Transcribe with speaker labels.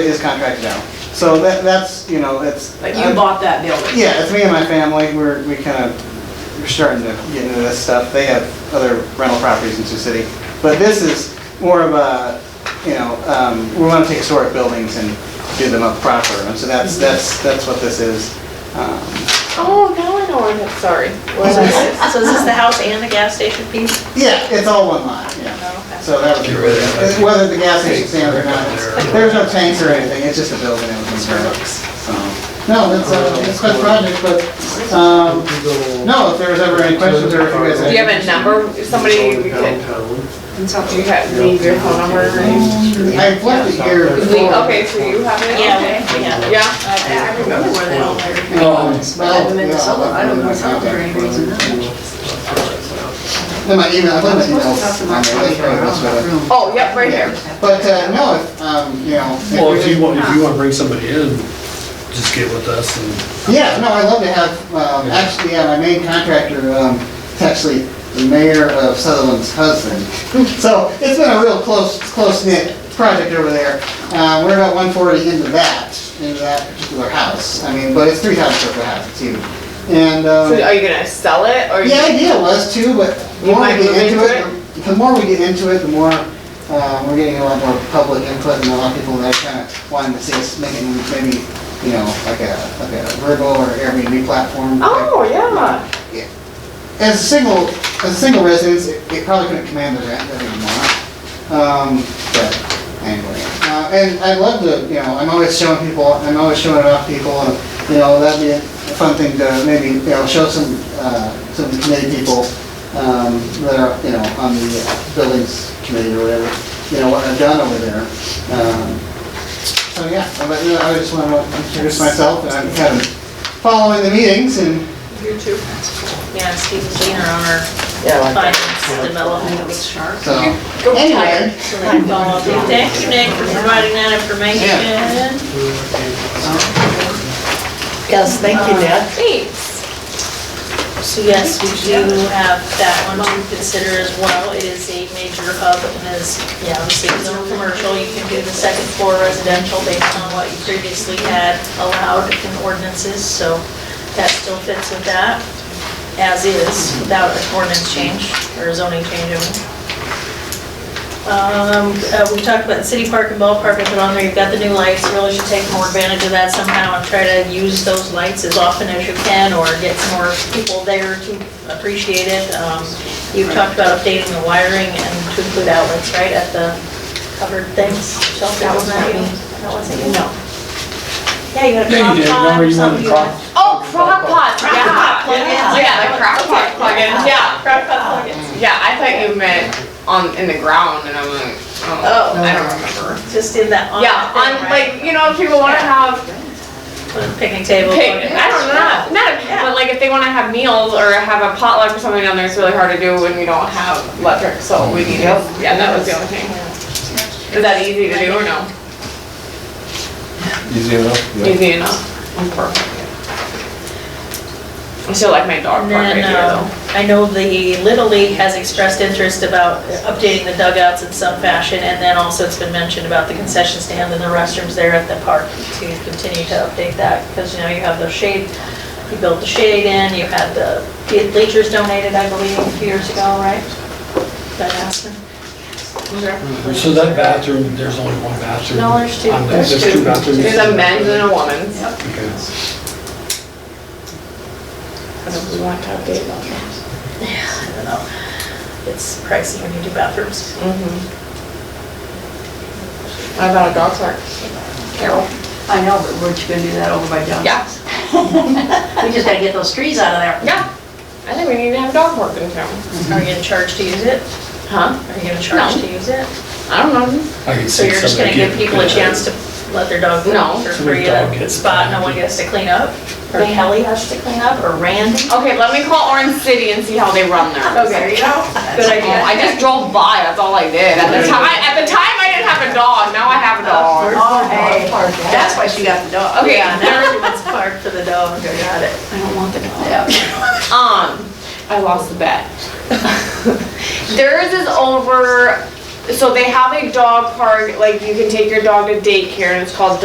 Speaker 1: It is contracted out. So that, that's, you know, it's.
Speaker 2: Like you bought that building?
Speaker 1: Yeah, it's me and my family, we're, we kind of, we're starting to get into this stuff. They have other rental properties in Sioux City. But this is more of a, you know, um, we want to take historic buildings and do them up proper. And so that's, that's, that's what this is. Um,
Speaker 3: Oh, now I know where it is, sorry. What is this? So is this the house and the gas station piece?
Speaker 1: Yeah, it's all one lot,
Speaker 3: Oh,
Speaker 1: yeah.
Speaker 3: okay.
Speaker 1: So that would be,
Speaker 4: Get rid of that.
Speaker 1: whether the gas station stands or not,
Speaker 4: There.
Speaker 1: there's no tanks or anything, it's just a building that was burned. So, No, it's, uh, it's quite a project, but, um, no, if there was ever any questions or if you guys.
Speaker 3: Do you have a number, somebody we could, do you have, leave your phone number? or anything?
Speaker 1: I left it here.
Speaker 3: We- Okay, so you have it?
Speaker 2: Yeah, okay, yeah.
Speaker 3: Yeah,
Speaker 2: I I remember where they all
Speaker 1: Um,
Speaker 2: are. I haven't been to
Speaker 1: yeah,
Speaker 2: Sullivan, I don't know Sullivan or anything.
Speaker 1: Then my email, I left my emails on there, they probably messed with it.
Speaker 3: oh, yep, right here.
Speaker 1: But, uh, no, if, um, you know. if
Speaker 4: Well,
Speaker 1: we
Speaker 4: if
Speaker 1: did-
Speaker 4: you want, if you want to bring somebody in, just get with us and.
Speaker 1: Yeah, no, I'd love to have, um, actually, yeah, my main contractor, um, is actually the mayor of Sutherland's husband. So it's been a real close, close knit project over there. Uh, we're about one forty into that, into that particular house. I mean, but it's three thousand square foot house too. And, um,
Speaker 3: So are Oh, you gonna sell it or?
Speaker 1: the idea was too, but the
Speaker 3: You
Speaker 1: more we
Speaker 3: might
Speaker 1: get
Speaker 3: move
Speaker 1: into
Speaker 3: into
Speaker 1: it, the more we get into it, the more, um, we're getting a lot more public input and a lot of people that kind of wanting to see us making maybe, you know, like a, like a Virgo or Airbnb platform.
Speaker 3: Oh, yeah.
Speaker 1: As a single, as a single residence, it it probably couldn't command the rent that we want. Um, but anyway, uh, and I love to, you know, I'm always showing people, I'm always showing it off people, and, you know, that'd be a fun thing to maybe, you know, show some, uh, some committee people, um, that are, you know, on the uh, buildings committee or whatever, you know, what I've done over there. Um, So, yeah, but, you know, I just wanna introduce myself, and I'm kind of following the meetings, and
Speaker 3: You too.
Speaker 2: Yeah, Steve and Gina on our finance development. Shark.
Speaker 1: so,
Speaker 3: Go
Speaker 1: anyway.
Speaker 2: Thank you, Nick, for providing that information.
Speaker 5: Yes, thank you, Dad.
Speaker 3: Thanks.
Speaker 2: So yes, we do have that one to consider as well. It is a major hub and is, yeah, obviously it's zone commercial. You can do the second floor residential based on what you previously had allowed in ordinances, so that still fits with that as is without an ordinance change or zoning change. I mean. Um, uh, we talked about the city park and ballpark, I put on there, you've got the new lights, you really should take more advantage of that somehow and try to use those lights as often as you can or get some more people there to appreciate it. Um, you talked about updating the wiring and to include outlets, right, at the covered things, shelter,
Speaker 3: That was
Speaker 2: wasn't that
Speaker 3: not
Speaker 2: you?
Speaker 3: me.
Speaker 2: That wasn't you, no. Yeah, you had a
Speaker 4: Yeah,
Speaker 2: crop
Speaker 4: you did.
Speaker 2: pot
Speaker 4: Remember
Speaker 2: or
Speaker 4: you wanted
Speaker 2: something.
Speaker 4: crop-
Speaker 3: Oh, crock pot, yeah.
Speaker 2: plug-in.
Speaker 3: Yeah, the crock pot plugins, yeah.
Speaker 2: Crop pot plugins.
Speaker 3: Yeah, I thought you meant on, in the ground and I'm like, oh, I don't remember.
Speaker 2: Just in that on.
Speaker 3: Yeah, on, like, you know, if people wanna have
Speaker 2: Put a picnic table.
Speaker 3: pick, I don't know, not a,
Speaker 2: Yeah.
Speaker 3: but like if they wanna have meals or have a potluck or something down there, it's really hard to do when we don't have electric, so we need, yeah, that was the only thing. Is that easy to do or no?
Speaker 4: Easy enough?
Speaker 3: Easy enough. I'm perfect. I still like my
Speaker 2: And
Speaker 3: dog park right
Speaker 2: then,
Speaker 3: here
Speaker 2: um,
Speaker 3: though.
Speaker 2: I know the Little League has expressed interest about updating the dugouts in some fashion, and then also it's been mentioned about the concession stand and the restrooms there at the park to continue to update that, because, you know, you have the shade, you built the shade in, you had the bleachers donated, I believe, a few years ago, right? That Aspen?
Speaker 4: Mm-hmm. So that bathroom, there's only one bathroom?
Speaker 2: No, there's two.
Speaker 4: on that- There's two bathrooms?
Speaker 3: There's a men's and a woman's.
Speaker 4: Okay.
Speaker 3: Because we want to update them.
Speaker 2: I don't know. It's pricey when you do bathrooms.
Speaker 3: Mm-hmm. I bought a dog park. Carol.
Speaker 6: I know, but weren't you gonna do that over by Johnson's?
Speaker 3: Yeah,
Speaker 2: We just gotta get those trees out of there.
Speaker 3: yeah. I think we need to have a dog park in town.
Speaker 2: Are you gonna charge to use it?
Speaker 3: Huh?
Speaker 2: Are you gonna charge to use it?
Speaker 3: I don't know.
Speaker 4: I can
Speaker 2: So
Speaker 4: see
Speaker 2: you're just gonna
Speaker 4: somebody
Speaker 2: give
Speaker 4: get-
Speaker 2: people a chance to let their dog
Speaker 3: No.
Speaker 2: go for free
Speaker 4: Let the dog
Speaker 2: at a
Speaker 4: get-
Speaker 2: spot, no one gets to clean up? Or Kelly has to clean up, or Randy?
Speaker 3: Okay, let me call Orange City and see how they run there.
Speaker 2: Okay, you know, good
Speaker 3: Oh, I
Speaker 2: idea.
Speaker 3: just drove by, that's all I did. At the time, at the time, I didn't have a dog, now I have a dog.
Speaker 6: Oh, hey,
Speaker 2: hey.
Speaker 6: that's why she got the dog.
Speaker 3: Okay,
Speaker 2: Yeah, now everyone's parked for the dog, I got it.
Speaker 6: I don't want the dog.
Speaker 3: Um, I lost the bet. Theirs is over so they have a dog park, like you can take your dog to daycare and it's called